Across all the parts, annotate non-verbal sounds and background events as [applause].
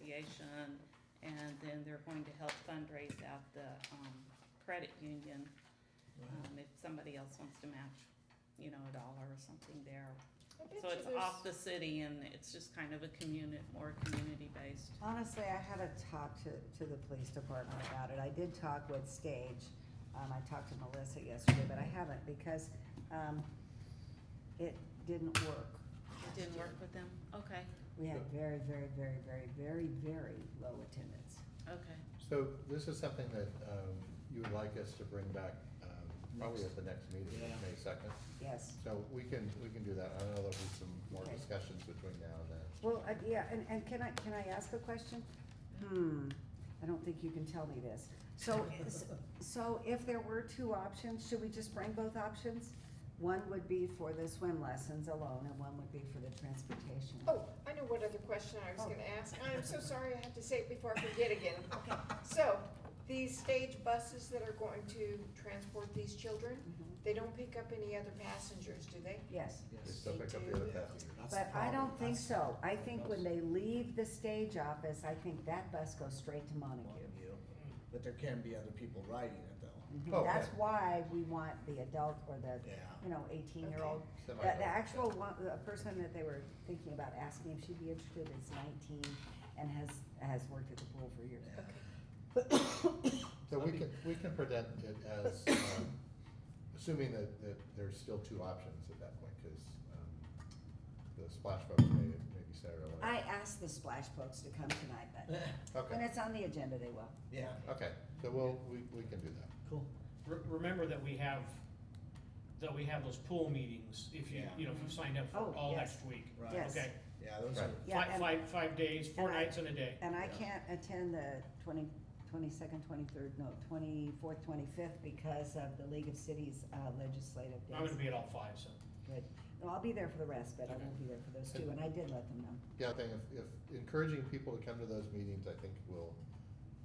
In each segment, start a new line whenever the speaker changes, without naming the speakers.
Association, and then they're going to help fundraise out the, um, credit union.
Uh-huh.
Um, if somebody else wants to match, you know, a dollar or something there.
I bet
So
you
it's
there's-
off the city and it's just kind of a community, more community-based.
Honestly, I haven't talked to, to the police department about it. I did talk with Stage. Um, I talked to Melissa yesterday, but I haven't because, um, it didn't work.
It didn't work with them? Okay,
We had very, very, very, very, very, very low attendance.
okay.
So this is something that um, you would like us to bring back um, probably at the next meeting,
Yeah.
May second.
Yes.
So we can, we can do that. I know there'll be some more
Okay.
discussions between now and then.
Well, uh, yeah, and, and can I, can I ask a question? Hmm, I don't think you can tell me this. So, is- so if there were two options, should we just bring both options? One would be for the swim lessons alone, and one would be for the transportation.
Oh, I know what other question I was
Oh.
gonna ask. I'm so sorry I have to say it before I forget [laughs] again. So, these stage buses that are going to transport these children,
Mhm.
they don't pick up any other passengers, do they?
Yes,
They
Yes.
still pick up the other passengers.
That's the
but I don't
problem.
think
That's-
so. I think when
that's
they leave the stage office, I think that bus goes straight to Montague.
on you. But there can be other people riding it though.
Mhm.
Okay.
That's why we want the adult or the,
Yeah.
you know, eighteen-year-old.
Okay.
The,
Semi-adult,
the actual
yeah.
one, the person that they were thinking about asking if she'd be interested is nineteen and has, has worked at the pool for years.
Yeah.
So we can, we can present it as, um, assuming that, that there's still two options at that point, because the splash folks may, may be Saturday. or
I asked the Splash Folks to come tonight, but when
Okay,
it's on the agenda, they will.
Yeah.
okay, so we'll, we, we can do that.
Cool.
Re- Remember that we have, that we have those pool meetings, if you,
Yeah.
you know, if you signed up
Oh,
for all
yes.
next week.
Right.
Yes.
Okay,
Yeah, those are,
Yeah,
five,
and-
five, five days, four
and I-
nights and a day.
And I
Yeah.
can't attend the twenty, twenty-second, twenty-third, no, twenty-fourth, twenty-fifth because of the League of Cities uh, legislative days.
I'm gonna be at all five, so.
Good. No, I'll be there for the rest, but I
Okay.
won't be there for those two, and I did let them know.
Yeah, I think if, if encouraging people to come to those meetings, I think will,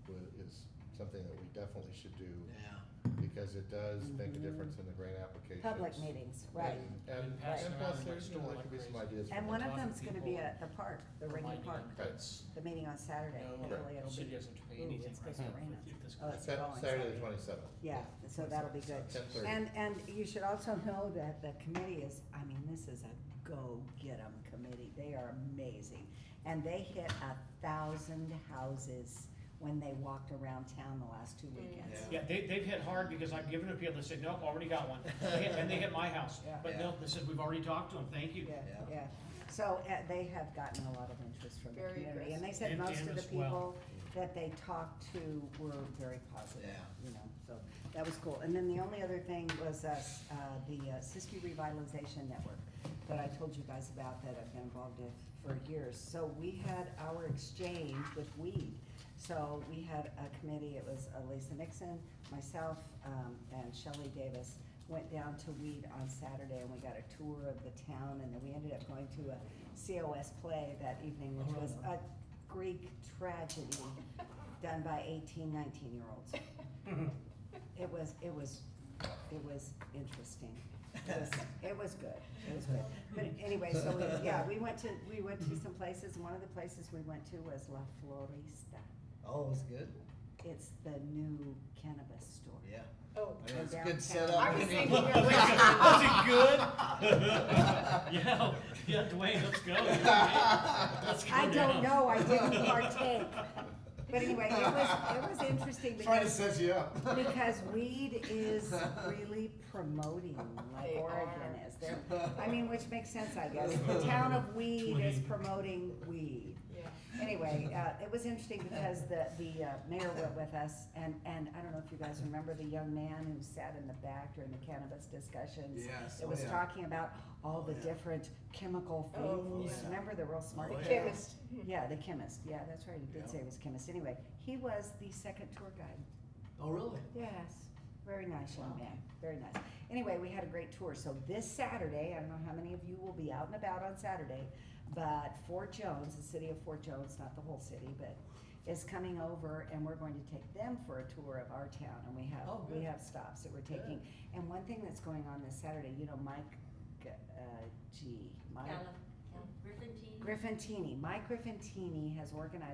will, is something that we definitely should do.
yeah.
Because it does make a difference in the grant applications.
Mm-hmm. Public meetings, right.
And, and
And pass
and
it
plus,
around
there's, you know, there
like
could be some
crazy.
ideas. from
And
the
one
top.
of
talk to
them's gonna be
people,
at the park, the Ringy
reminding
Park,
them
Right.
that's-
the meeting on Saturday.
No,
Hopefully it'll
city
be-
doesn't pay
Ooh,
anything
it's
right
supposed to
now.
rain
If this
out. Oh, it's
Sa-
going
Saturday the twenty-seventh.
Yeah, so that'll be good.
10:30.
And, and you should also know that the committee is, I mean, this is a go-get-em committee. They are amazing. And they hit a thousand houses when they walked around town the last
Mm.
two weekends.
Yeah, they, they've hit hard because I've given it to people, they said, nope, already got one. They hit- And they hit my house,
Yeah.
but no, they said, we've already talked to them, thank you.
Yeah, [laughs] yeah. So uh, they have gotten a lot of interest from the
Very
community. And they
aggressive.
said
And
most of
Dan
the
as well.
people that they talked to were very positive,
Yeah.
you know, so that was cool. And then the only other thing was us, uh, the uh, Siskiyou Revitalization Network that I told you guys about that I've been involved in for years. So we had our exchange with weed. So we had a committee, it was uh, Lisa Nixon, myself, um, and Shelley Davis went down to Weed on Saturday and we got a tour of the town and then we ended up going to a COS play that evening, which was a Greek tragedy done by 18, 19 year olds. It was, it was, it was interesting. It was, it was good, it was good. But anyway, so, we- yeah, we went to, we went to some places, one of the places we went to was La Florista.
[laughs] Oh, it was good.
It's the new cannabis store.
Yeah.
Oh,
I mean, it's a
Downtown.
good setup.
I was thinking of-
Was it good?
[laughs]
[laughs]
[laughs]
Yeah, yeah, Dwayne, let's go. Let's go
I don't
down.
know,
[laughs]
I didn't partake. But anyway, it was, it was interesting
Trying to
because,
set you up.
[laughs]
because weed is really promoting like
They
Oregon
are.
is. They're- I mean, which makes sense, I guess. The town of weed is promoting weed.
Yeah.
Anyway, uh, it was interesting because the, the uh, mayor went with us and, and I don't know if you guys remember the young man who sat in the back during the cannabis discussions.
Yes,
It
oh,
was
yeah.
talking about all the
Oh, yeah.
different chemical
Oh,
things.
yeah.
Remember the real smart
Oh, yeah.
guy?
Chemist. Hmm.
Yeah, the chemist, yeah, that's right, he
Yeah.
did say he was a chemist, anyway, he was the second tour guide.
Oh, really?
Yes, very nice young
Wow.
man, very nice. Anyway, we had a great tour, so this Saturday, I don't know how many of you will be out and about on Saturday, but Fort Jones, the city of Fort Jones, not the whole city, but is coming over and we're going to take them for a tour of our town and we have,
Oh,
we
good.
have stops that we're taking. And one thing that's going on this Saturday, you know, Mike, G- uh, G, Mike
Griffin team.
Griffintini, Mike Griffintini has organized